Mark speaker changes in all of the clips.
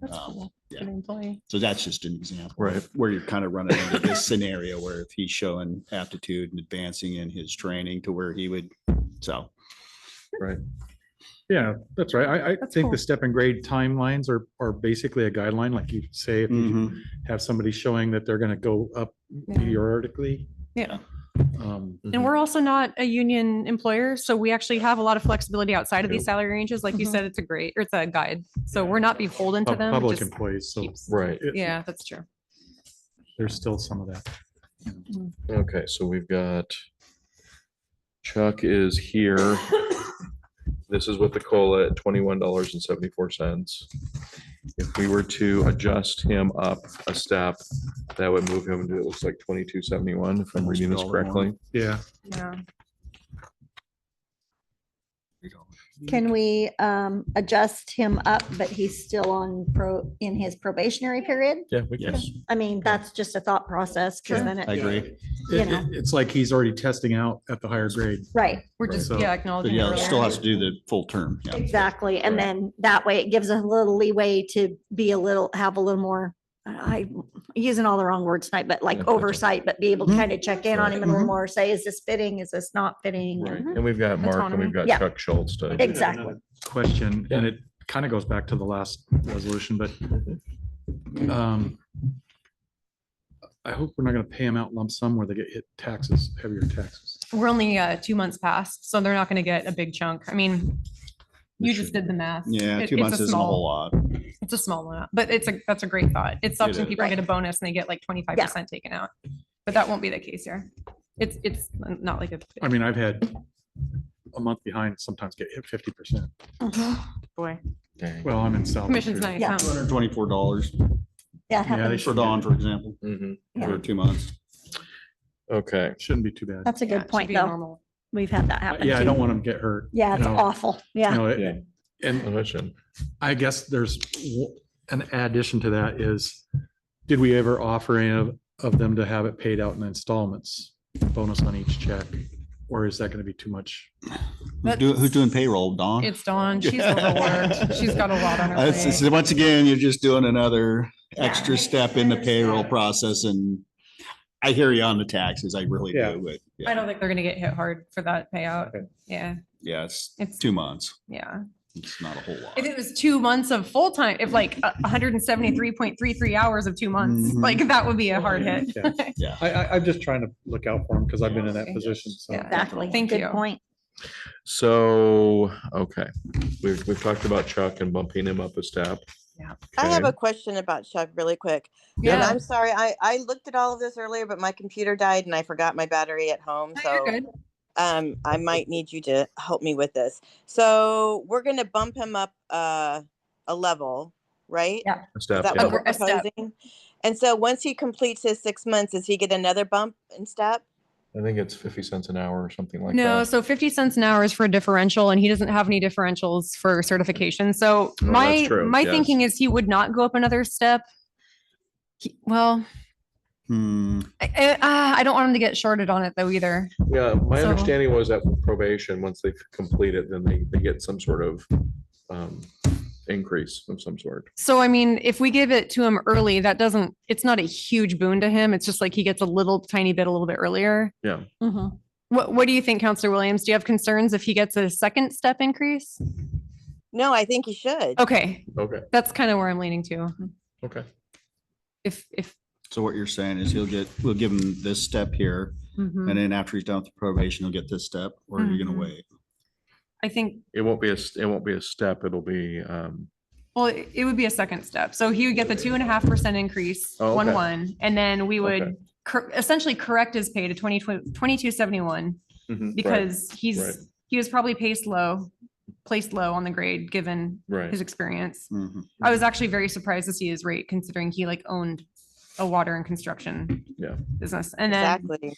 Speaker 1: That's
Speaker 2: Um,
Speaker 1: cool.
Speaker 2: yeah.
Speaker 1: An Employee.
Speaker 2: So that's just an example.
Speaker 3: Right.
Speaker 2: Where you're kind of running into this scenario where if he's showing aptitude and advancing in his training to where he would, so.
Speaker 3: Yeah, that's right. I, I
Speaker 1: That's
Speaker 3: think
Speaker 1: cool.
Speaker 3: the step and grade timelines are, are basically a guideline, like you say, if you have somebody showing that they're gonna go up
Speaker 1: Yeah.
Speaker 3: periodically.
Speaker 1: Yeah.
Speaker 3: Um,
Speaker 1: And we're also not a union employer, so we actually have a lot of flexibility outside of these
Speaker 3: Yep.
Speaker 1: salary ranges. Like you
Speaker 4: Mm-hmm.
Speaker 5: Mhm.
Speaker 1: said, it's a great, or it's a guide. So we're not beholden to
Speaker 3: pub-
Speaker 1: them. It
Speaker 3: public
Speaker 1: just
Speaker 3: employees, so
Speaker 1: keeps-
Speaker 5: Right,
Speaker 3: it-
Speaker 1: Yeah, that's true.
Speaker 3: there's still some of that.
Speaker 5: okay, so we've got Chuck is here. This is with the COLA at twenty-one dollars and seventy-four cents. If we were to adjust him up a step, that would move him to, it looks like twenty-two seventy-one, if I'm reading this
Speaker 2: Almost dollar more.
Speaker 5: correctly.
Speaker 3: Yeah.
Speaker 1: Yeah.
Speaker 3: Mm-hmm.
Speaker 4: Can we um adjust him up, but he's still on pro, in his probationary period?
Speaker 3: Yeah. we can-
Speaker 2: Yes,
Speaker 4: I mean, that's just a thought process, because
Speaker 3: Sure.
Speaker 4: then
Speaker 2: I
Speaker 4: it,
Speaker 2: agree.
Speaker 4: You
Speaker 3: It-
Speaker 4: know.
Speaker 3: it- It's like he's already testing out at the higher grade.
Speaker 4: right,
Speaker 1: We're
Speaker 3: Right.
Speaker 1: just,
Speaker 3: So-
Speaker 1: yeah,
Speaker 2: But
Speaker 1: acknowledging.
Speaker 2: yeah,
Speaker 1: it
Speaker 2: it still
Speaker 1: earlier.
Speaker 2: has to do the full term. Yeah.
Speaker 4: exactly. And
Speaker 5: Right.
Speaker 4: then that way it gives us a little leeway to be a little, have a little more, I, I'm using all the wrong words tonight, but
Speaker 5: Yeah,
Speaker 4: like
Speaker 5: that's okay.
Speaker 4: oversight, but be able to
Speaker 3: Mhm.
Speaker 4: kind of check in on
Speaker 5: Right.
Speaker 4: him a
Speaker 3: Mm-hmm.
Speaker 4: little more, say, is this fitting? Is this not fitting?
Speaker 5: Right,
Speaker 4: And-
Speaker 5: and we've got Mark and
Speaker 1: Autonomy.
Speaker 5: we've got
Speaker 4: Yeah.
Speaker 5: Chuck Schultz to.
Speaker 3: did have
Speaker 4: Exactly.
Speaker 3: another Question, and it kind of goes back to the last resolution, but um, I hope we're not gonna pay them out lump sum where they get hit taxes, heavier taxes.
Speaker 1: We're only uh, two months past, so they're not going to get a big chunk. I mean, you just did the math.
Speaker 2: Yeah,
Speaker 1: It-
Speaker 2: two
Speaker 1: it's
Speaker 2: months isn't a
Speaker 1: small-
Speaker 2: whole lot.
Speaker 1: It's a small amount, but it's a, that's a great thought. It's often
Speaker 2: is.
Speaker 1: people get a bonus and they get like twenty-five percent taken out. But that won't be the case here. It's, it's not like a.
Speaker 3: I mean, I've had a month behind, sometimes get hit fifty percent.
Speaker 4: Mhm.
Speaker 1: Boy.
Speaker 5: Dang.
Speaker 3: Well, I'm in South.
Speaker 1: Commission's not.
Speaker 4: Yeah.
Speaker 2: Two hundred and twenty-four dollars
Speaker 4: Yeah, it
Speaker 3: Yeah, they
Speaker 4: happens.
Speaker 2: for
Speaker 3: should,
Speaker 2: Dawn, for example,
Speaker 5: Mhm,
Speaker 2: for two months.
Speaker 5: Okay,
Speaker 3: shouldn't be too bad.
Speaker 4: that's a good point, though. We've had that happen.
Speaker 3: Yeah, I
Speaker 4: too.
Speaker 3: don't want them to get hurt.
Speaker 4: Yeah, it's
Speaker 3: no.
Speaker 4: awful.
Speaker 3: you
Speaker 4: Yeah.
Speaker 3: know, it-
Speaker 5: Yeah.
Speaker 3: And
Speaker 5: well, that should-
Speaker 3: I guess there's w- an addition to that is, did we ever offer any of, of them to have it paid out in installments? Bonus on each check, or is that gonna be too much?
Speaker 2: Who's doing, who's doing payroll, Dawn?
Speaker 1: It's Dawn. She's overworked. She's got a lot on her
Speaker 2: Uh, it's-
Speaker 1: plate.
Speaker 2: it's- Once again, you're just doing another
Speaker 4: Yeah.
Speaker 2: extra step in the payroll process and I hear you on the taxes. I really
Speaker 3: Yeah.
Speaker 2: do. but
Speaker 1: I
Speaker 2: yeah,
Speaker 1: don't think they're gonna get hit hard for that payout.
Speaker 3: Okay.
Speaker 1: Yeah,
Speaker 2: Yeah, it's
Speaker 1: It's-
Speaker 2: two months.
Speaker 1: yeah.
Speaker 2: It's not a whole lot.
Speaker 1: If it was two months of full time, if like hundred and seventy-three point three-three hours of two months,
Speaker 2: Mhm.
Speaker 1: like that would be a hard hit.
Speaker 3: Yeah. I, I, I'm just trying to look out for them because I've been in that
Speaker 1: Okay.
Speaker 3: position, so.
Speaker 1: Yeah.
Speaker 4: Exactly.
Speaker 1: Thank
Speaker 4: Good
Speaker 1: you.
Speaker 4: Point.
Speaker 5: so, okay, we've, we've talked about Chuck and bumping him up a step.
Speaker 1: Yeah.
Speaker 6: I have
Speaker 5: Okay.
Speaker 6: a question about Chuck really quick. And
Speaker 1: Yeah.
Speaker 6: I'm sorry, I, I looked at all of this earlier, but my computer died and I forgot my battery at home.
Speaker 1: No,
Speaker 6: So
Speaker 1: you're good.
Speaker 6: um, I might need you to help me with this. So we're going to bump him up uh, a level, right?
Speaker 1: Yeah.
Speaker 5: A
Speaker 6: Is
Speaker 5: step,
Speaker 6: that
Speaker 5: yeah.
Speaker 6: what we're
Speaker 1: A step.
Speaker 6: proposing? And so once he completes his six months, does he get another bump and step?
Speaker 5: I think it's fifty cents an hour or something like
Speaker 1: No,
Speaker 5: that.
Speaker 1: so fifty cents an hour is for a differential and he doesn't have any differentials for certification. So
Speaker 5: Oh, that's
Speaker 1: my,
Speaker 5: true,
Speaker 1: my
Speaker 5: yes.
Speaker 1: thinking is he would not go up another step. He- Well,
Speaker 2: Hmm,
Speaker 1: I, uh, I, I don't want him to get shorted on it though either.
Speaker 5: Yeah, my
Speaker 1: So-
Speaker 5: understanding was that with probation, once they complete it, then they, they get some sort of um, increase of some sort.
Speaker 1: So I mean, if we give it to him early, that doesn't, it's not a huge boon to him. It's just like he gets a little tiny bit a little bit earlier.
Speaker 4: Mhm.
Speaker 1: What, what do you think, Counselor Williams? Do you have concerns if he gets a second step increase?
Speaker 6: No, I think he should.
Speaker 1: Okay,
Speaker 5: Okay,
Speaker 1: that's kind of where I'm leaning to.
Speaker 5: okay.
Speaker 1: If, if.
Speaker 2: So what you're saying is he'll get, we'll give him this step here
Speaker 1: mhm.
Speaker 2: and then after he's done with probation, he'll get this step or you're
Speaker 1: Mhm.
Speaker 2: gonna wait.
Speaker 1: I think
Speaker 5: It won't be a, s- it won't be a step, it'll be, um,
Speaker 1: Well, it it would be a second step. So he would get the two and a half percent increase,
Speaker 5: Oh,
Speaker 1: one,
Speaker 5: okay.
Speaker 1: one, and then we
Speaker 5: Okay.
Speaker 1: would cor- essentially correct his pay to 20 2271
Speaker 5: mhm, right,
Speaker 1: because
Speaker 5: right.
Speaker 1: he's, he was probably paced low, placed low on the grade, given his
Speaker 5: Right,
Speaker 1: experience.
Speaker 2: Mhm.
Speaker 1: I was actually very surprised to see his rate considering he like owned a water and construction
Speaker 5: Yeah.
Speaker 1: business. And then,
Speaker 6: Exactly.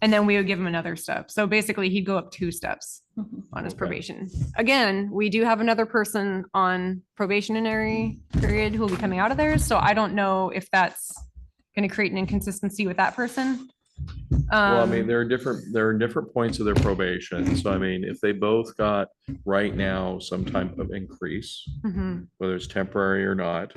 Speaker 1: and then we would give him another step. So basically he'd go up two steps
Speaker 4: Mhm.
Speaker 1: on his
Speaker 5: Okay.
Speaker 1: probation. Again, we do have another person on probationary period who will be coming out of there, so I don't know if that's gonna create an inconsistency with that person.
Speaker 5: well, I mean,
Speaker 1: Um,
Speaker 5: there are different, there are different points of their probation, so I mean, if they both got right now some type of increase,
Speaker 1: mhm.
Speaker 5: whether it's temporary or not,